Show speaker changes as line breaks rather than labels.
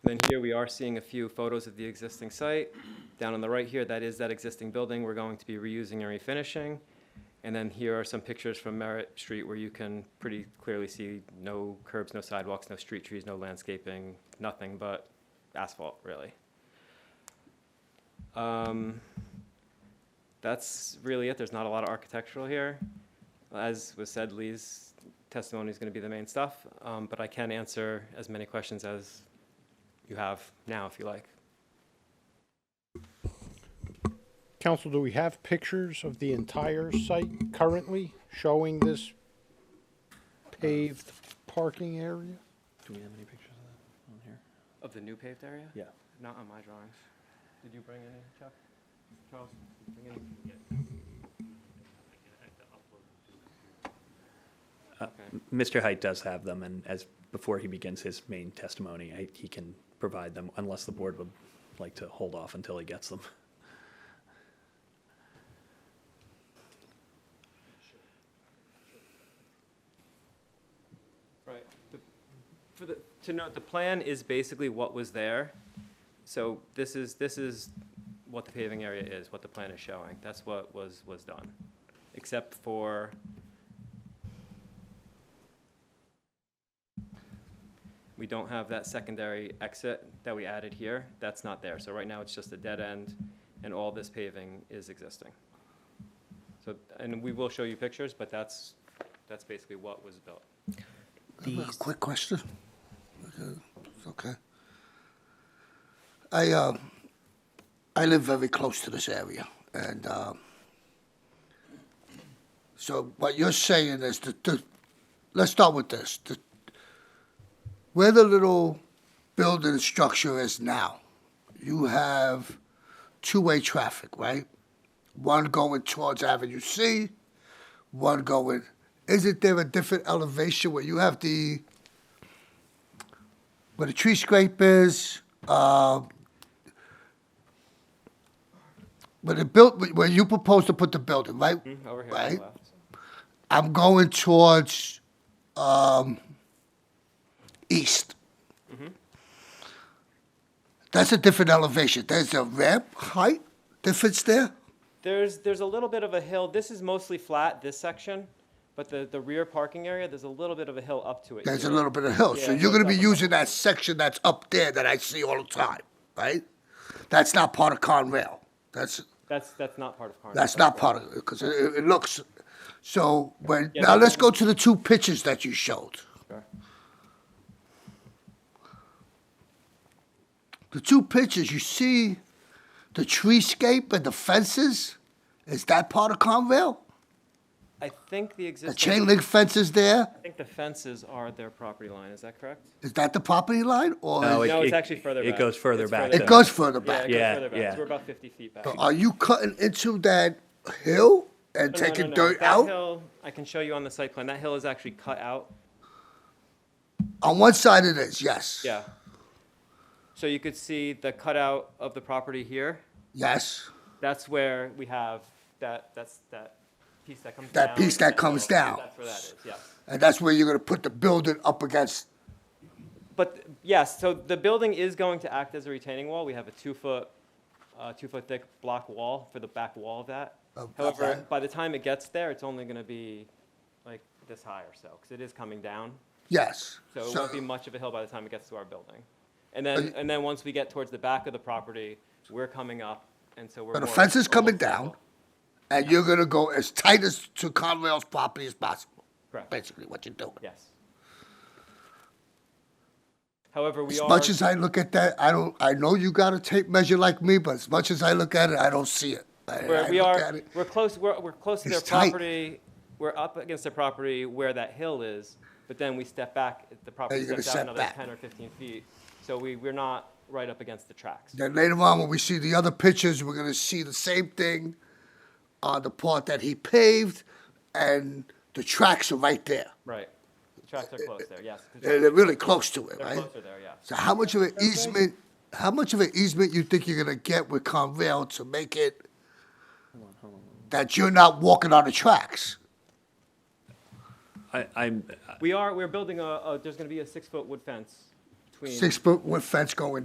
Then here we are seeing a few photos of the existing site. Down on the right here, that is that existing building we're going to be reusing and refinishing. And then here are some pictures from Merritt Street where you can pretty clearly see no curbs, no sidewalks, no street trees, no landscaping, nothing but asphalt, really. Um, That's really it. There's not a lot of architectural here. As was said, Lee's testimony is going to be the main stuff, um, but I can answer as many questions as you have now, if you like.
Council, do we have pictures of the entire site currently showing this paved parking area?
Do we have any pictures of that on here?
Of the new paved area?
Yeah.
Not on my drawings. Did you bring any, Chuck? Charles? Bring any?
Mr. Height does have them, and as, before he begins his main testimony, I, he can provide them unless the board would like to hold off until he gets them.
Right. The- For the, to note, the plan is basically what was there. So this is, this is what the paving area is, what the plan is showing. That's what was, was done. Except for we don't have that secondary exit that we added here. That's not there. So right now, it's just a dead end, and all this paving is existing. So, and we will show you pictures, but that's, that's basically what was built.
A Quick question. Okay, it's Okay. I, uh, I live very close to this area, and, uh, so what you're saying is that, the- let's start with this. The- Where the little building structure is now, you have two-way traffic, right? One going towards Avenue C, one going. Isn't there a different elevation where you have the where the tree scrape is? Uh, where the built where you propose to put the building, right?
Over here on
right.
the left.
I'm going towards um, east. Mm-hmm. That's a different elevation. There's a ramp height difference there.
There's, there's a little bit of a hill. This is mostly flat, this section, but the, the rear parking area, there's a little bit of a hill up to it.
There's a
here.
little bit of hill, so
Yeah,
you're gonna be
it's up
using that section that's up there that I see all the time, right? That's not part of Conrail. That's,
That's, that's not part of Carnegie.
that's not part of, because it, it looks, so when,
Yeah,
now
but-
let's go to the two pictures that you showed.
Sure.
The two pictures, you see the treescape and the fences? Is that part of Conrail?
I think the
The
existing.
chain link fences there,
I think the fences are their property line, is that correct?
is that the property line, or?
No,
is-
it-
No, it's actually further
it
back.
goes further
It's
back
further
than-
It goes further
Yeah,
back.
it goes
Yeah,
further back.
yeah.
So We're about fifty feet back.
So Are you cutting into that hill and
No, no,
taking
no, no.
dirt
That
out?
hill- I can show you on the site plan. That hill is actually cut out.
On one side it is, yes.
Yeah. So you could see the cutout of the property here.
Yes.
That's where we have that, that's that piece that comes down.
That piece that comes
hill.
down.
That's where that is, yeah.
And that's where you're going to put the building up against.
But yes, so the building is going to act as a retaining wall. We have a two-foot, uh, two-foot thick block wall for the back wall of that.
Of- of
However,
that.
by the time it gets there, it's only gonna be like this high or so, because it is coming down.
Yes.
So it
So-
won't be much of a hill by the time it gets to our building. And then, and then once we get towards the back of the property, we're coming up, and so we're.
So the
more
fence is coming
almost level.
down, and you're going to go as tight as to Conrail's property as possible.
Correct,
Basically, what you're doing.
yes. However, we
As
are.
much as I look at that, I don't. I know you got a tape measure like me, but as much as I look at it, I don't see it. I,
Where
I
we
look
are,
at it.
we're close, we're, we're close to their
It's tight.
property, we're up against their property where that hill is, but then we step back, the property
you're gonna
steps out
step
another
back.
ten or fifteen feet. So we, we're not right up against the tracks.
Then later on, when we see the other pictures, we're gonna see the same thing on the part that he paved, and the tracks are right there.
Right. The tracks are close there, yes. 'cause
They're, they're really close to it,
They're
right?
closer there, yeah.
So how much of an easement, how much of an easement you think you're gonna get with Conrail to make it that you're not walking on the tracks?
I, I'm,
We are, we're building a, a, there's gonna be a six-foot wood fence between.
Six foot wood fence going